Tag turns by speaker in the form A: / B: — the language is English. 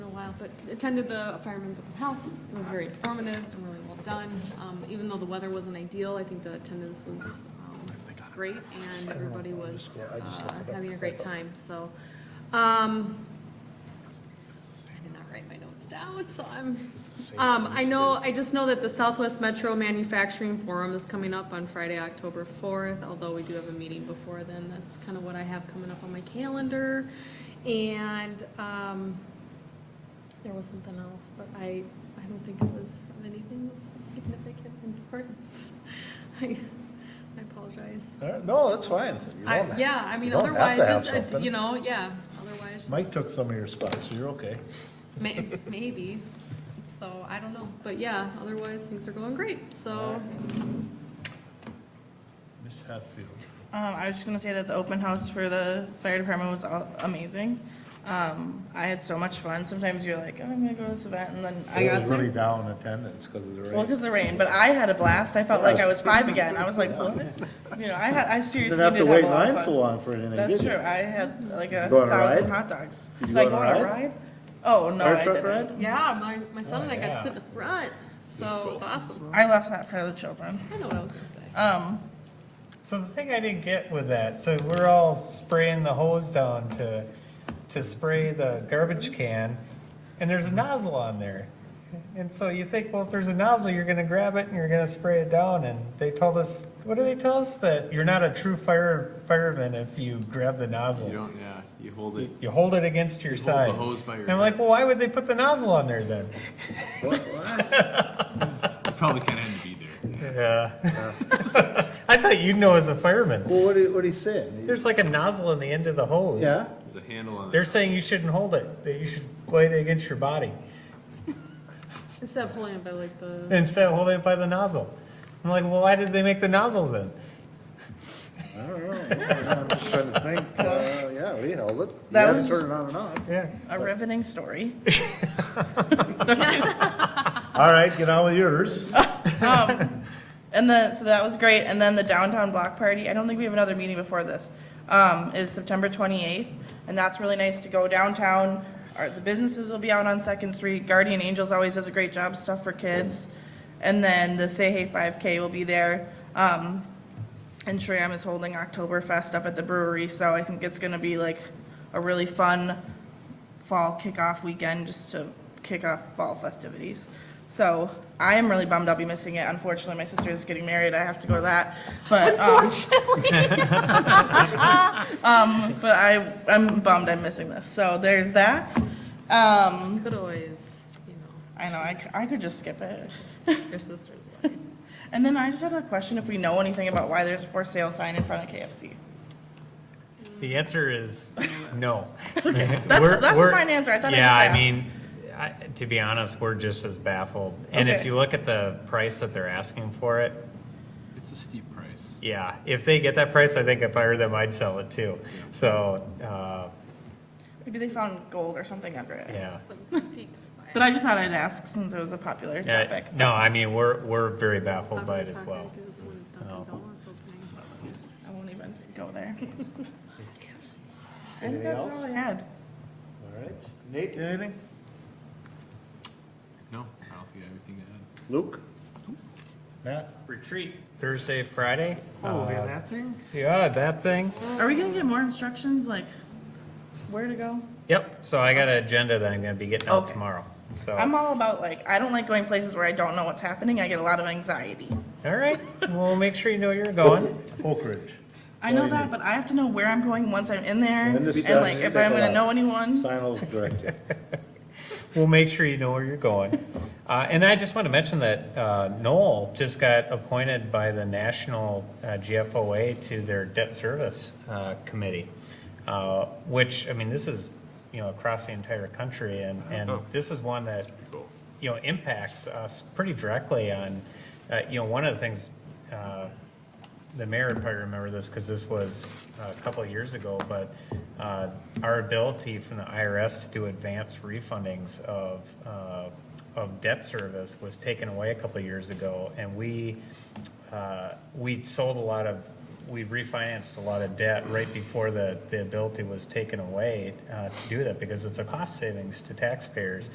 A: but attended the firemen's open house. It was very informative and really well done. Um, even though the weather wasn't ideal, I think the attendance was um, great and everybody was uh, having a great time. So, um, I did not write my notes down, so I'm. Um, I know, I just know that the Southwest Metro Manufacturing Forum is coming up on Friday, October fourth, although we do have a meeting before then. That's kind of what I have coming up on my calendar. And, um, there was something else, but I, I don't think it was of anything of significant importance. I, I apologize.
B: All right, No, that's fine. You're
A: I,
B: on that.
A: yeah, I mean,
B: You don't have to
A: otherwise,
B: have
A: just, uh,
B: something.
A: you know, yeah, otherwise, just-
B: Mike took some of your spots, so you're okay.
A: May- Maybe. So I don't know. But yeah, otherwise things are going great. So
B: Miss Hatfield.
C: Um, I was just gonna say that the open house for the fire department was all- amazing. Um, I had so much fun. Sometimes you're like, oh, I'm gonna go to this event, and then I
B: It was
C: got
B: really
C: there.
B: down attendance because of the rain.
C: Well, because of the rain, but I had a blast. I felt like I was five again. I was like, what? You know, I had, I
B: You
C: seriously
B: didn't have
C: did have a
B: to wait
C: lot
B: line
C: of
B: so
C: fun.
B: long for anything,
C: That's
B: did
C: true.
B: you?
C: I had like a
B: you go on a
C: thousand
B: ride?
C: hot dogs.
B: Did you
C: Did I
B: go on a ride?
C: Oh, no,
B: Fire
C: I
B: truck
C: didn't.
B: ride?
A: yeah, my, my son
D: Oh,
A: and I got to sit in the front. So it's awesome.
C: I left that for the children.
A: I know what I was gonna say.
C: Um,
D: So the thing I didn't get with that, so we're all spraying the hose down to, to spray the garbage can, and there's a nozzle on there. And so you think, well, if there's a nozzle, you're gonna grab it and you're gonna spray it down, and they told us, what do they tell us? That you're not a true fire, fireman if you grab the
E: You
D: nozzle.
E: don't, yeah, you hold it.
D: You hold it against your
E: You hold the
D: side.
E: hose by your
D: And I'm like, well, why would they put the nozzle on there then?
E: You probably can't have to be there.
D: Yeah. I thought you'd know as a fireman.
B: Well, what are, what are you saying?
D: There's like a nozzle on the end of the hose.
B: Yeah?
E: There's a handle on
D: They're
E: it.
D: saying you shouldn't hold it, that you should lay it against your body
A: Instead of pulling it by like the
D: instead of holding it by the nozzle. I'm like, well, why did they make the nozzle then?
B: I don't know. I'm just trying to think. Uh, yeah, we held it. You
C: That
B: had to
C: was-
B: turn it on and off.
D: Yeah.
C: a riveting story.
B: All right, get on with yours.
C: And then, so that was great. And then the downtown block party, I don't think we have another meeting before this, um, is September 28th. And that's really nice to go downtown. Our, the businesses will be out on Second Street. Guardian Angels always does a great job, stuff for kids. And then the Say Hey 5K will be there. Um, and Shram is holding Oktoberfest up at the brewery, so I think it's gonna be like a really fun fall kickoff weekend just to kick off fall festivities. So I am really bummed I'll be missing it. Unfortunately, my sister is getting married. I have to go to that. But um, um, but I I'm bummed I'm missing this. So there's that. Um,
A: could always, you know,
C: I know I, c- I could just skip it.
A: your sister's wedding.
C: And then I just had a question if we know anything about why there's a for sale sign in front of KFC.
D: The answer is no.
C: That's,
D: We're-
C: that's a
D: we're-
C: fine answer. I thought
D: Yeah,
C: I just
D: I
C: asked.
D: mean, I, to be honest, we're just as baffled. And if
C: Okay.
D: you look at the price that they're asking for it,
E: It's a steep price.
D: yeah, if they get that price, I think if I were them, I'd sell it too. So, uh,
C: Maybe they found gold or something under it.
D: yeah.
C: But I just thought I'd ask since it was a popular
D: Yeah,
C: topic.
D: No, I mean, we're, we're very baffled by it as well. Oh.
C: I won't even go there. I think
B: Anything
C: that's
B: else?
C: all I had.
B: All right. Nate, anything?
E: No, I don't think I have anything to add.
B: Luke? Matt?
D: Retreat Thursday, Friday.
B: Oh,
D: Uh,
B: yeah, that thing?
D: Yeah, that thing.
C: Are we gonna get more instructions, like where to go?
D: Yep. So I got an agenda that I'm going to be getting out
C: Okay.
D: tomorrow. So
C: I'm all about like, I don't like going places where I don't know what's happening. I get a lot of anxiety.
D: all right. Well, make sure you know where you're going.
B: Oak Ridge.
C: I know
B: Sorry,
C: that, but I have to know where I'm going once I'm in there.
B: And
C: And
B: this
C: like,
B: stuff-
C: if I'm gonna know anyone,
B: Sign will direct you.
D: We'll make sure you know where you're going. Uh, and I just want to mention that uh, Noel just got appointed by the National uh, GFOA to their Debt Service uh, Committee, uh, which, I mean, this is, you know, across the entire country. And, and this is one that, you know, impacts us pretty directly on, uh, you know, one of the things uh, the mayor would probably remember this because this was uh, a couple of years ago, but uh, our ability from the IRS to do advance refundings of, uh, of debt service was taken away a couple of years ago. And we, uh, we sold a lot of, we refinanced a lot of debt right before the, the ability was taken away uh, to do that because it's a cost savings to taxpayers.